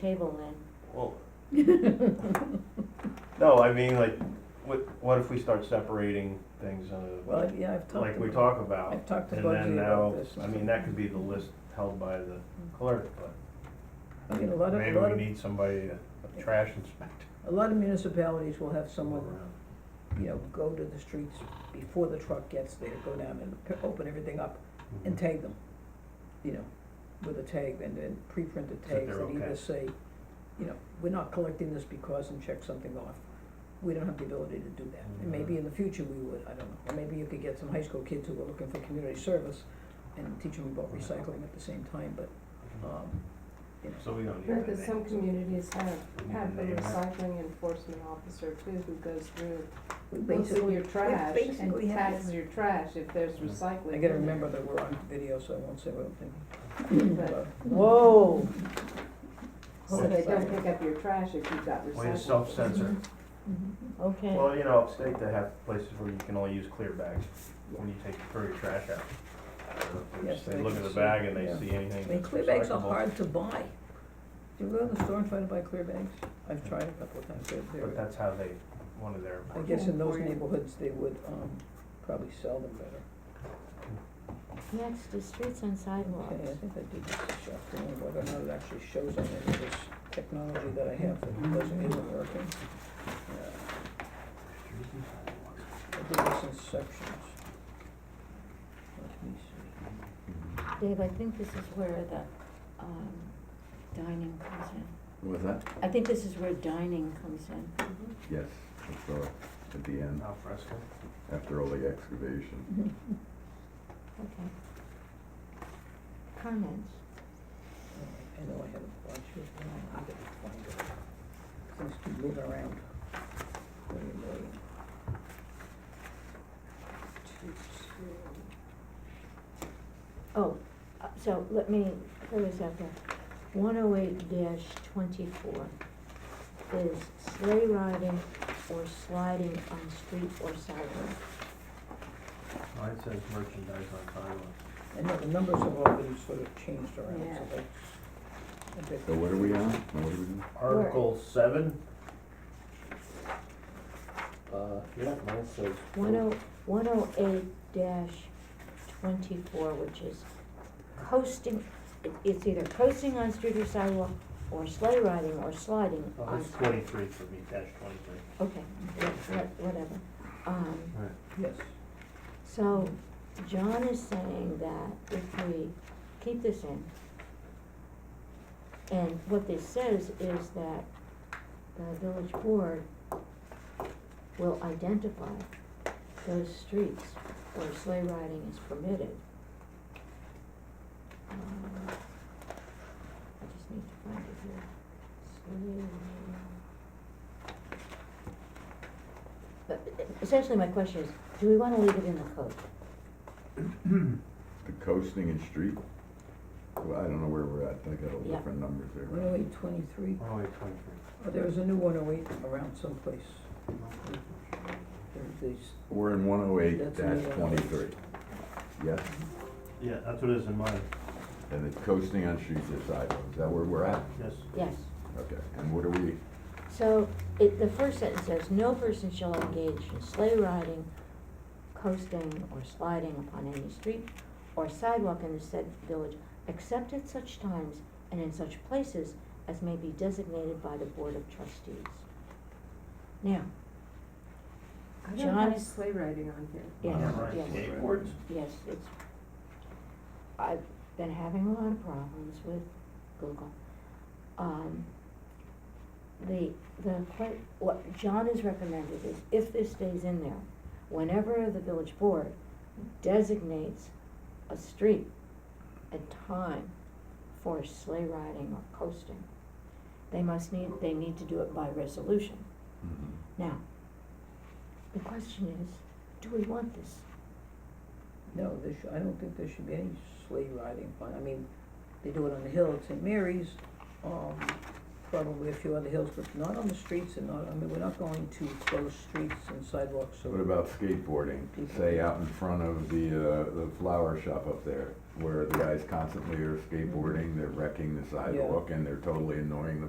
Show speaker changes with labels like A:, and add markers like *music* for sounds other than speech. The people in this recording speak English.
A: table
B: Well,
C: *laughs*
A: then.
B: no, I mean, like, what, what if we start separating things, uh,
C: Well, yeah, I've talked
B: like we
C: about,
B: talk about?
C: I've talked to
B: And
C: Bugsy
B: then
C: about
B: now,
C: this. Mm.
B: I mean, that could be the list held by the clerk,
C: I mean, a
B: but
C: lot of, a
B: maybe
C: lot
B: we
C: of,
B: need somebody, a- a trash inspector.
C: a lot of municipalities will have someone,
B: around.
C: you know, go to the streets before the truck gets there, go down and p- open everything up
B: Mm-hmm.
C: and tag them, you know, with a tag and then pre-printed
B: That
C: tags
B: they're
C: that
B: okay.
C: either say, you know, we're not collecting this because and check something off. We don't have the ability to do that.
B: Mm-hmm.
C: And maybe in the future we would, I don't know. Or maybe you could get some high school kids who are looking for community service and teach them about recycling at the same time, but, um, you know.
B: So we don't need
D: Right,
B: the
D: because some
B: name.
D: communities have,
B: We need
D: have
B: the
D: a
B: name.
D: recycling enforcement officer too, who goes through,
C: we
D: looks at
C: basically-
D: your trash and
C: basically have-
D: tags your trash if there's recycling.
C: I gotta remember that we're on video, so I won't say what I'm thinking.
D: But-
A: Whoa.
D: So they don't pick up your trash if you've got recycling.
B: Way to
D: *laughs*
B: self-censor.
D: Mm-hmm.
A: Okay,
B: Well, you know, upstate they have places where you can only use clear bags when you take, throw your trash out. So if they
C: Yeah,
B: just-
C: so
B: They
C: they
B: look at
C: can
B: the
C: see,
B: bag and they
C: yeah.
B: see anything
C: I mean,
B: that's
C: clear bags are
B: recyclable.
C: hard to buy. Do you go to the store and try to buy clear bags? I've tried a couple of times, they're,
B: But
C: they're,
B: that's how they, one of their.
C: I guess in those neighborhoods, they would, um, probably sell them better.
A: next is streets and
C: Okay, I
A: sidewalks.
C: think I did this this afternoon, whether or not it actually shows on any of this technology that I have that wasn't even working. Yeah, I did this in sections. Let me see.
A: Dave, I think this is where the, um, dining comes in.
E: Was that?
A: I think this is where dining comes
D: *laughs*
A: in.
D: Mhm.
E: Yes, I saw it at the end,
B: Al fresco.
E: after all the excavation.
A: Okay. Comments?
C: I know I have a bunch of them, I need to find it. Things keep moving around. Wait a minute. Two, two.
A: Oh, uh, so let me, where is that there? One oh eight dash twenty-four is sleigh riding or sliding on street or sidewalk.
B: Mine says merchandise on sidewalks.
C: I know the numbers have all been sort of changed around,
D: Yeah.
C: so that's. I bet-
E: So what are we on? Now What are we on?
B: Article seven. Uh, yeah, mine says.
A: One oh, one oh eight dash twenty-four, which is coasting, it- it's either coasting on street or sidewalk, or sleigh riding or sliding
B: Oh,
A: on.
B: it's twenty-three for me, dash twenty-three.
A: Okay, yeah, wha- whatever. Um,
B: Right.
C: Yes,
A: so John is saying that if we keep this in, and what this says is that the village board will identify those streets where sleigh riding is permitted. Um, I just need to find it here. Sleigh riding. But uh, essentially, my question is, do we wanna leave it in the code?
E: The coasting and street? Well, I don't know where we're at, I got all
A: Yeah.
E: different numbers there.
C: one oh eight twenty-three,
B: One oh eight twenty-three.
C: oh, there was a new one oh eight around someplace, there's these,
E: We're in one oh eight
C: That's
E: dash
C: me, uh,
E: twenty-three. Yes,
B: Yeah, that's what it is in mine,
E: and it's coasting on streets or sidewalks, is that where we're at?
B: yes.
A: Yes.
E: Okay, and what are we,
A: So, it, the first sentence says, no person shall engage in sleigh riding, coasting, or sliding upon any street or sidewalk in the said village, except at such times and in such places as may be designated by the board of trustees. Now,
D: I don't
A: John
D: have
A: is-
D: sleigh riding on here.
A: yes,
B: Right,
A: yes.
B: skateboards?
A: Yes, it's, I've been having a lot of problems with Google. Um, the, the, que- what John has recommended is if this stays in there, whenever the village board designates a street, a time for sleigh riding or coasting, they must need, they need to do it by resolution.
E: mhm.
A: Now, the question is, do we want this?
C: no, there should, I don't think there should be any sleigh riding, on- I mean, they do it on the hill at St. Mary's, um, probably a few other hills, but not on the streets and not, I mean, we're not going to close streets and sidewalks,
E: What
C: so,
E: about skateboarding? Say out in front of the, uh, the flower shop up there, where the guys constantly are skateboarding, they're wrecking the sidewalk and they're totally annoying the